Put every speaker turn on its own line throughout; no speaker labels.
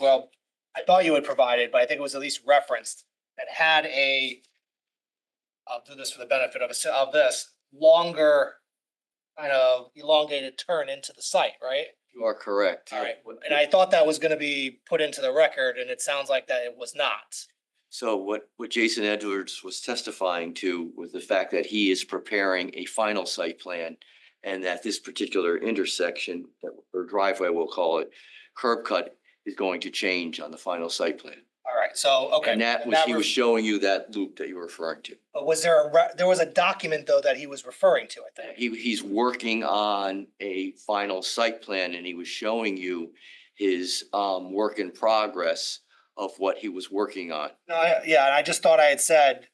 well, I thought you had provided, but I think it was at least referenced, that had a, I'll do this for the benefit of, us- of this, longer, kind of elongated turn into the site, right?
You are correct.
All right, and I thought that was gonna be put into the record, and it sounds like that it was not.
So what, what Jason Edwards was testifying to was the fact that he is preparing a final site plan and that this particular intersection, that- or driveway, we'll call it, curb cut is going to change on the final site plan.
All right, so, okay.
And that was, he
re-
was showing you that loop that you were referring to.
But was there a, re- there was a document, though, that he was referring to, I think?
He, he's working on a final site plan and he was showing you his, um, work in progress of what he was working on.
No, I- yeah, and I just thought I had said,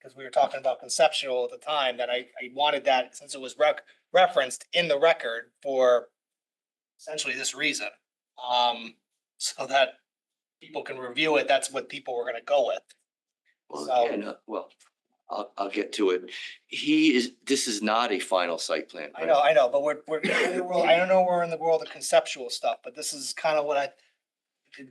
because we were talking about conceptual at the time, that I, I wanted that, since it was rec- referenced in the record for essentially this reason. Um, so that people can review it, that's what people were gonna go with.
Well,
So-
again, uh, well, I'll, I'll get to it. He is, this is not a final site plan.
I
right?
know, I know, but we're, we're, we're- I don't know, we're in the world of conceptual stuff, but this is kind of what I,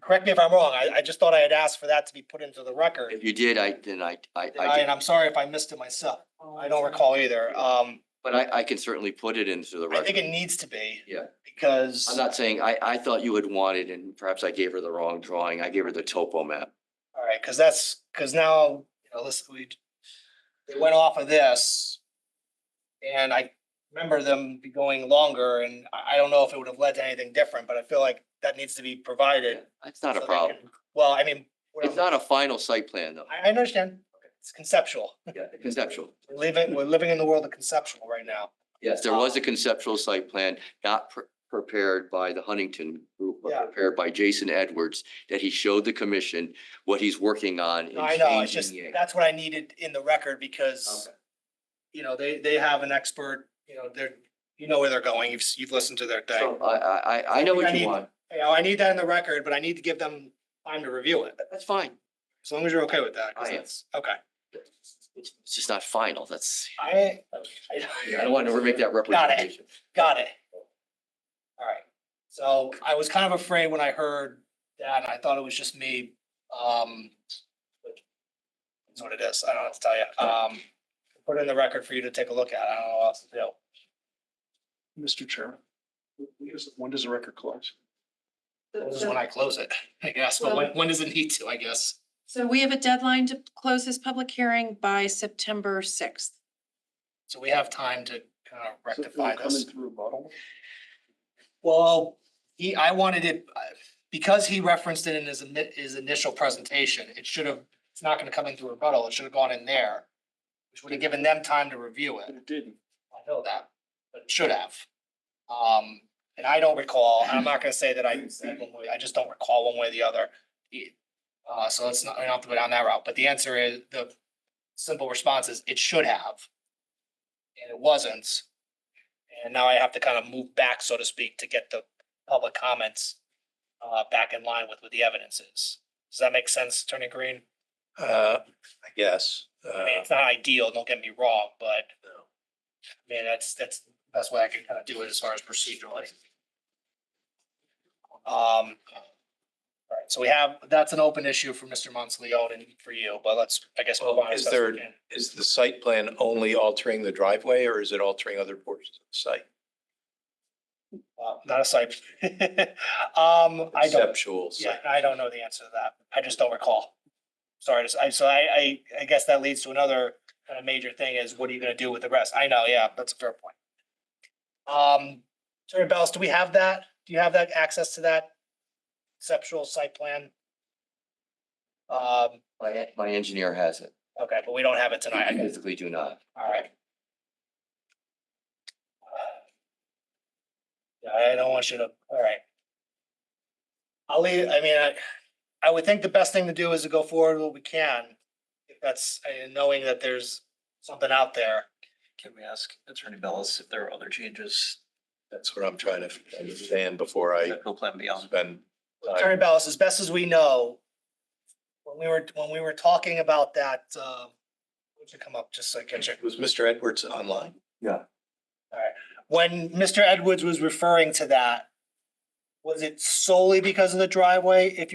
correct me if I'm wrong, I, I just thought I had asked for that to be put into the record.
If you did, I, then I, I,
And I-
I,
and
did-
I'm sorry if I missed it myself, I don't recall either, um.
but I, I can certainly put it into the
I think
record.
it needs to be.
Yeah.
Because.
I'm not saying, I, I thought you had wanted, and perhaps I gave her the wrong drawing. I gave her the topo map.
All right, because that's, because now, you know, listen, we, they went off of this. And I remember them be going longer and I, I don't know if it would have led to anything different, but I feel like that needs to be provided.
It's not
so
a
they
problem.
can- Well, I mean. we're-
It's not a final site plan though.
I, I understand. It's conceptual.
Yeah, Conceptual.
We're living, we're living in the world of conceptual right now.
Yes,
Uh,
there was a conceptual site plan not pre- prepared by the Huntington group, but
Yeah.
prepared by Jason Edwards, that he showed the commission what he's working on. in
I know, it's just,
changing it.
that's what I needed in the record because,
Okay.
you know, they, they have an expert, you know, they're, you know where they're going. You've, s- you've listened to their
So
thing.
I, I, I, I know
think I
what
need-
you want.
You know, I need that in the record, but I need to give them time to review it,
That's fine.
as long as you're okay with that. 'cause
I am.
that's- Okay.
It's it's just not final. That's,
I,
I don't want to ever make that representation.
Got it. All right. So I was kind of afraid when I heard that. I thought it was just me. Um, that's what it is. I don't have to tell you. Um, put it in the record for you to take a look at. I don't know what else to do.
Mr. Chairman, when does- when does the record close?
This is when I close it, I guess. But when, when does it need to, I guess?
So we have a deadline to close this public hearing by September sixth.
So we have time to kind of
Is it
rectify this.
Coming through bottle?
Well, he, I wanted it, I- because he referenced it in his, ini- his initial presentation, it should have, it's not gonna come into rebuttal, it should have gone in there. Which would have given them time to review it,
It didn't.
I know that, but it should have. Um, and I don't recall, and I'm not gonna say that I, said one way, I just don't recall one way or the other. Uh, so it's not, we don't have to go down that route, but the answer is, the simple response is, it should have. And it wasn't. And now I have to kind of move back, so to speak, to get the public comments uh, back in line with what the evidence is. Does that make sense, Attorney Green?
Uh, I guess.
I mean,
Uh,
it's not ideal, don't get me wrong, but I mean, that's, that's the best way I can kind of do it as far as procedurally. Um, all right, so we have, that's an open issue for Mr. Monteleone and for you, but let's, I guess. move
Well,
on as
is
best we
there-
can.
Is the site plan only altering the driveway or is it altering other portions of the site?
Uh, Not a site. Um, I don't.
Conceptual
Yeah,
site.
I don't know the answer to that. I just don't recall. Sorry, to s- I, so I, I, I guess that leads to another kind of major thing is what are you gonna do with the rest? I know, yeah, that's a fair point. Um, Attorney Bellis, do we have that? Do you have that access to that conceptual site plan? Um,
My, en- my engineer has it.
okay, but we don't have it tonight. I
I
guess.
physically do not.
All right. Yeah, I don't want you to, all right. I'll leave, I mean, I, I would think the best thing to do is to go forward what we can. If that's, uh, knowing that there's something out there.
Can we ask Attorney Bellis if there are other changes
That's what I'm trying to understand before I
that go plan beyond?
spend. time.
Attorney Ballas, as best as we know, when we were, when we were talking about that, uh, would you come up just so I can check?
Was Mr. Edwards online?
When Mr. Edwards was referring to that, Was it solely because of the driveway? If